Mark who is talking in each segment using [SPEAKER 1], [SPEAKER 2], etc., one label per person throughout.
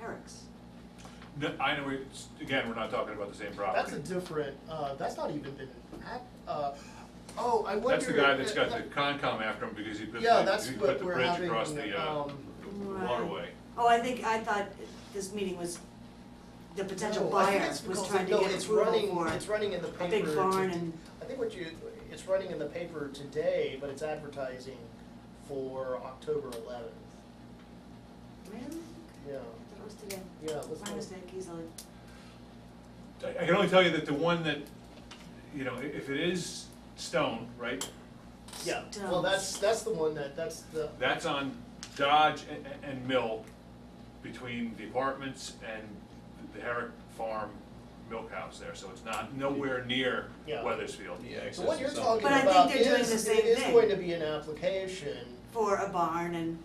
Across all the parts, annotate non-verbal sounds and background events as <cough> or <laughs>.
[SPEAKER 1] Herrick's.
[SPEAKER 2] No, I know, it's, again, we're not talking about the same
[SPEAKER 3] That's
[SPEAKER 2] property.
[SPEAKER 3] a different, uh, that's not even been, act- uh, oh, I wonder.
[SPEAKER 2] That's the guy that's got the
[SPEAKER 3] uh,
[SPEAKER 2] Concom after him because he put
[SPEAKER 3] Yeah,
[SPEAKER 2] the,
[SPEAKER 3] that's
[SPEAKER 2] he
[SPEAKER 3] what
[SPEAKER 2] put the
[SPEAKER 3] we're
[SPEAKER 2] bridge
[SPEAKER 3] having,
[SPEAKER 2] across the, uh,
[SPEAKER 3] um,
[SPEAKER 2] the waterway.
[SPEAKER 1] Oh, I think, I thought this meeting was, the potential
[SPEAKER 3] No, I think
[SPEAKER 1] buyer
[SPEAKER 3] it's
[SPEAKER 1] was
[SPEAKER 3] because-
[SPEAKER 1] trying to
[SPEAKER 3] no,
[SPEAKER 1] get
[SPEAKER 3] it's
[SPEAKER 1] approval
[SPEAKER 3] running-
[SPEAKER 1] for
[SPEAKER 3] It's running in the
[SPEAKER 1] a big
[SPEAKER 3] paper. to-
[SPEAKER 1] barn and-
[SPEAKER 3] I think what you, it's running in the paper today, but it's advertising for October eleventh.
[SPEAKER 1] Really? Okay.
[SPEAKER 3] Yeah,
[SPEAKER 1] I thought it was today.
[SPEAKER 3] yeah, let's
[SPEAKER 1] My
[SPEAKER 3] look.
[SPEAKER 1] mistake easily.
[SPEAKER 2] I I can only tell you that the one that, you know, i- if it is stone, right,
[SPEAKER 3] Yeah, well, that's, that's the one that, that's the,
[SPEAKER 2] that's on Dodge and, and Mill between the apartments and the Herrick Farm Milk House there, so it's not nowhere near
[SPEAKER 3] Yeah.
[SPEAKER 2] Weathersfield.
[SPEAKER 4] Yeah,
[SPEAKER 3] so what you're
[SPEAKER 4] access is
[SPEAKER 3] talking
[SPEAKER 1] But I think
[SPEAKER 3] about
[SPEAKER 1] they're doing
[SPEAKER 3] is,
[SPEAKER 1] the
[SPEAKER 3] it
[SPEAKER 1] same
[SPEAKER 3] is
[SPEAKER 1] thing.
[SPEAKER 3] going to be an application,
[SPEAKER 1] For a barn and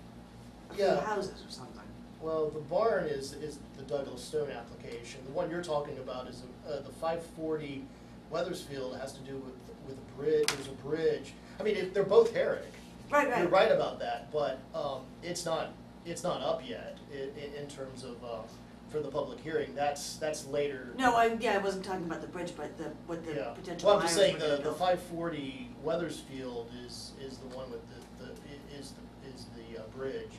[SPEAKER 1] a few
[SPEAKER 3] Yeah.
[SPEAKER 1] houses or something.
[SPEAKER 3] well, the barn is, is the Douglas Stone application. The one you're talking about is, uh, the five forty Weathersfield has to do with, with a bridge, there's a bridge. I mean, it- they're both Herrick.
[SPEAKER 1] Right, right.
[SPEAKER 3] You're right about that, but, um, it's not, it's not up yet i- i- in terms of, uh, for the public hearing, that's, that's later.
[SPEAKER 1] No, I, yeah, I wasn't talking about the bridge, but the, what the
[SPEAKER 3] Yeah,
[SPEAKER 1] potential
[SPEAKER 3] well, I'm
[SPEAKER 1] buyers
[SPEAKER 3] just
[SPEAKER 1] were
[SPEAKER 3] saying,
[SPEAKER 1] gonna
[SPEAKER 3] the, the
[SPEAKER 1] build.
[SPEAKER 3] five forty Weathersfield is, is the one with the, the, i- is, the is the uh, bridge,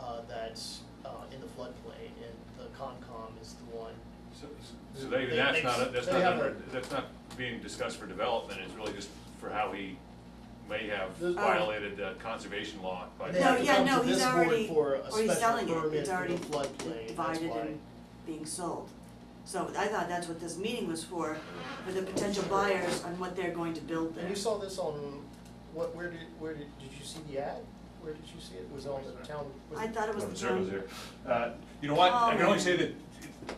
[SPEAKER 3] uh, that's, uh, in the floodplain, and the Concom is the one.
[SPEAKER 2] So, so they,
[SPEAKER 3] They-
[SPEAKER 2] that's
[SPEAKER 3] they-
[SPEAKER 2] not, a- that's
[SPEAKER 3] they
[SPEAKER 2] not,
[SPEAKER 3] have
[SPEAKER 2] under-
[SPEAKER 3] a-
[SPEAKER 2] that's not being discussed for development, it's really just for how he may have
[SPEAKER 3] There's-
[SPEAKER 1] Oh.
[SPEAKER 2] violated the conservation law by.
[SPEAKER 3] They
[SPEAKER 1] No,
[SPEAKER 3] have to
[SPEAKER 1] yeah,
[SPEAKER 3] come to
[SPEAKER 1] no, he's
[SPEAKER 3] this board
[SPEAKER 1] already-
[SPEAKER 3] for a
[SPEAKER 1] Or he's
[SPEAKER 3] special
[SPEAKER 1] selling it,
[SPEAKER 3] permit
[SPEAKER 1] it's
[SPEAKER 3] for the
[SPEAKER 1] already
[SPEAKER 3] floodplain, that's
[SPEAKER 1] divided
[SPEAKER 3] why.
[SPEAKER 1] and being sold. So I thought that's what this meeting was for, for the potential buyers on what they're going to build there.
[SPEAKER 3] And you saw this on, what, where did, where did, did you see the ad? Where did you see it? Was it on the town? was
[SPEAKER 1] I
[SPEAKER 3] it-
[SPEAKER 1] thought it was
[SPEAKER 2] Going
[SPEAKER 1] the
[SPEAKER 2] in circles
[SPEAKER 1] town,
[SPEAKER 2] here. Uh, You know what, I can only
[SPEAKER 1] Oh.
[SPEAKER 2] say that,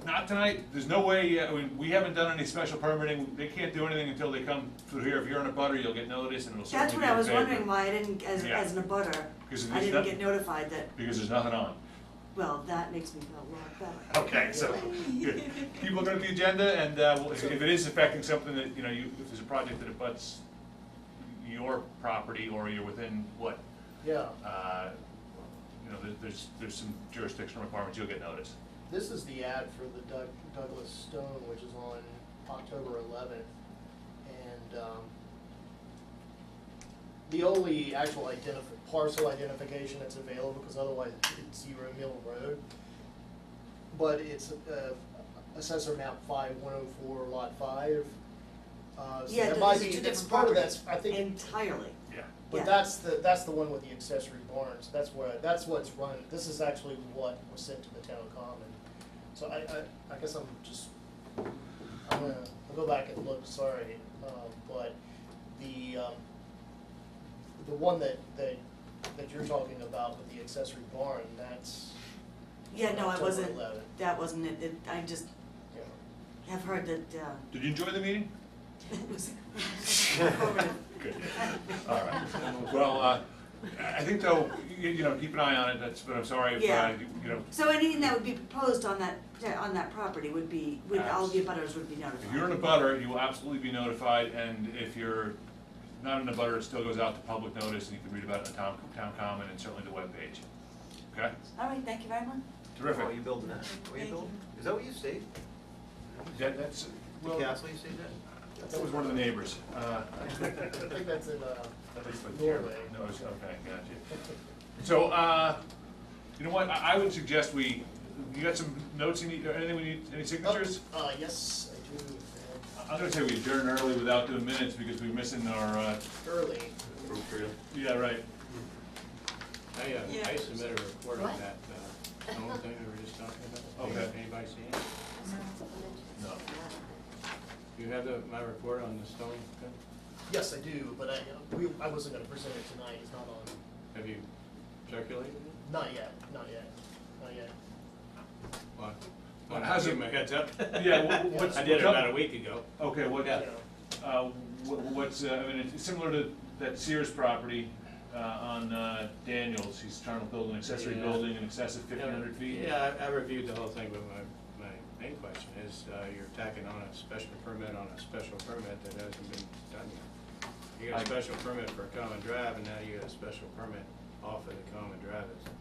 [SPEAKER 2] not tonight, there's no way, I mean, we haven't done any special permitting, they can't do anything until they come through here, if you're in a butter, you'll get notice and it'll
[SPEAKER 1] that's what
[SPEAKER 2] certainly be in
[SPEAKER 1] I was
[SPEAKER 2] favor.
[SPEAKER 1] wondering why I didn't, as,
[SPEAKER 2] Yeah.
[SPEAKER 1] as an abutter,
[SPEAKER 2] 'Cause
[SPEAKER 1] I
[SPEAKER 2] there's
[SPEAKER 1] didn't
[SPEAKER 2] not-
[SPEAKER 1] get notified that,
[SPEAKER 2] Because there's nothing on.
[SPEAKER 1] well, that makes me feel a lot better.
[SPEAKER 2] Okay, so, good. keep looking at the agenda, and uh, we'll- if if it is affecting something that, you know, you, if there's a project that abuts your property, or you're within, what,
[SPEAKER 3] Yeah,
[SPEAKER 2] uh, you know, there- there's, there's some jurisdictional requirements, you'll get notice.
[SPEAKER 3] this is the ad for the Doug, Douglas Stone, which is on October eleventh, and, um, the only actual identif- parcel identification that's available, because otherwise it's Zero Mill Road, but it's, uh, assessor map five, one oh four, lot five, uh, so
[SPEAKER 1] Yeah,
[SPEAKER 3] that
[SPEAKER 1] these
[SPEAKER 3] might
[SPEAKER 1] are
[SPEAKER 3] be,
[SPEAKER 1] two
[SPEAKER 3] that's
[SPEAKER 1] different
[SPEAKER 3] part of
[SPEAKER 1] properties
[SPEAKER 3] that's, I think,
[SPEAKER 1] entirely.
[SPEAKER 2] Yeah.
[SPEAKER 1] Yeah.
[SPEAKER 3] But that's the, that's the one with the accessory barns, that's where, that's what's run, this is actually what was sent to the town common. So I, I, I guess I'm just, I'm gonna, I'll go back and look, sorry, um, but the, um, the one that, that, that you're talking about with the accessory barn, that's.
[SPEAKER 1] Yeah, no, I
[SPEAKER 3] October
[SPEAKER 1] wasn't,
[SPEAKER 3] 11.
[SPEAKER 1] that wasn't it, it, I just
[SPEAKER 3] Yeah.
[SPEAKER 1] have heard that, uh,
[SPEAKER 2] Did you enjoy the meeting?
[SPEAKER 1] <laughs> it was. informative.
[SPEAKER 2] Good. <laughs> All right. Well, uh, I I think though, you, you know, keep an eye on it, that's, but I'm sorry if,
[SPEAKER 1] Yeah.
[SPEAKER 2] uh, you you know,
[SPEAKER 1] So anything that would be proposed on that, on that property would be, would, all the abutters would be notified.
[SPEAKER 2] if you're in a butter, you will absolutely be notified, and if you're not in a butter, it still goes out to public notice, and you can read about it in the town, town common and certainly the webpage. Okay?
[SPEAKER 1] All right, thank you very much.
[SPEAKER 2] Terrific.
[SPEAKER 4] Oh, you building that? What are
[SPEAKER 1] Thank
[SPEAKER 4] you building?
[SPEAKER 1] you.
[SPEAKER 4] Is that what you saved?
[SPEAKER 2] That, that's,
[SPEAKER 4] The
[SPEAKER 2] well, that
[SPEAKER 4] castle you saved that?
[SPEAKER 2] was one of the neighbors. Uh, <laughs>
[SPEAKER 3] I think that's in, uh,
[SPEAKER 2] At least by
[SPEAKER 3] Norway.
[SPEAKER 2] No, it's, okay, gotcha.
[SPEAKER 3] <laughs>
[SPEAKER 2] So, uh, you know what, I, I would suggest we, you got some notes you need, or anything we need, any signatures?
[SPEAKER 3] Uh, yes, I do, and
[SPEAKER 2] I- I'm gonna say we adjourn early without doing minutes because we're missing our, uh,
[SPEAKER 3] early,
[SPEAKER 2] yeah, right.
[SPEAKER 5] I, uh, I
[SPEAKER 6] Yeah.
[SPEAKER 5] submitted a report on that, uh, whole thing we were just talking about. Oh,
[SPEAKER 2] Okay.
[SPEAKER 5] Anybody see it?
[SPEAKER 2] No.
[SPEAKER 5] Do you have the, my report on the stone thing?
[SPEAKER 3] yes, I do, but I, we, I wasn't gonna present it tonight, it's not on.
[SPEAKER 5] Have you circulated it?
[SPEAKER 3] Not yet, not yet, not yet.
[SPEAKER 5] Well,
[SPEAKER 2] Well,
[SPEAKER 5] I'll
[SPEAKER 2] how's
[SPEAKER 5] give
[SPEAKER 2] it-
[SPEAKER 5] my heads up.
[SPEAKER 2] Yeah, wha- what's-
[SPEAKER 5] <laughs> I did
[SPEAKER 2] what's
[SPEAKER 5] it
[SPEAKER 2] up?
[SPEAKER 5] about a week ago.
[SPEAKER 2] Okay, what,
[SPEAKER 5] Yeah.
[SPEAKER 2] uh, wh- what's, uh, I mean, it's similar to that Sears property, uh, on, uh, Daniels, he's trying to build an accessory
[SPEAKER 5] Yeah.
[SPEAKER 2] building in excess of fifteen hundred feet.
[SPEAKER 5] Yeah, I I reviewed the whole thing, but my, my main question is, uh, you're tacking on a special permit on a special permit that hasn't been done yet. You got a
[SPEAKER 2] I-
[SPEAKER 5] special permit for a common drive, and now you got a special permit off of the common drive. It's-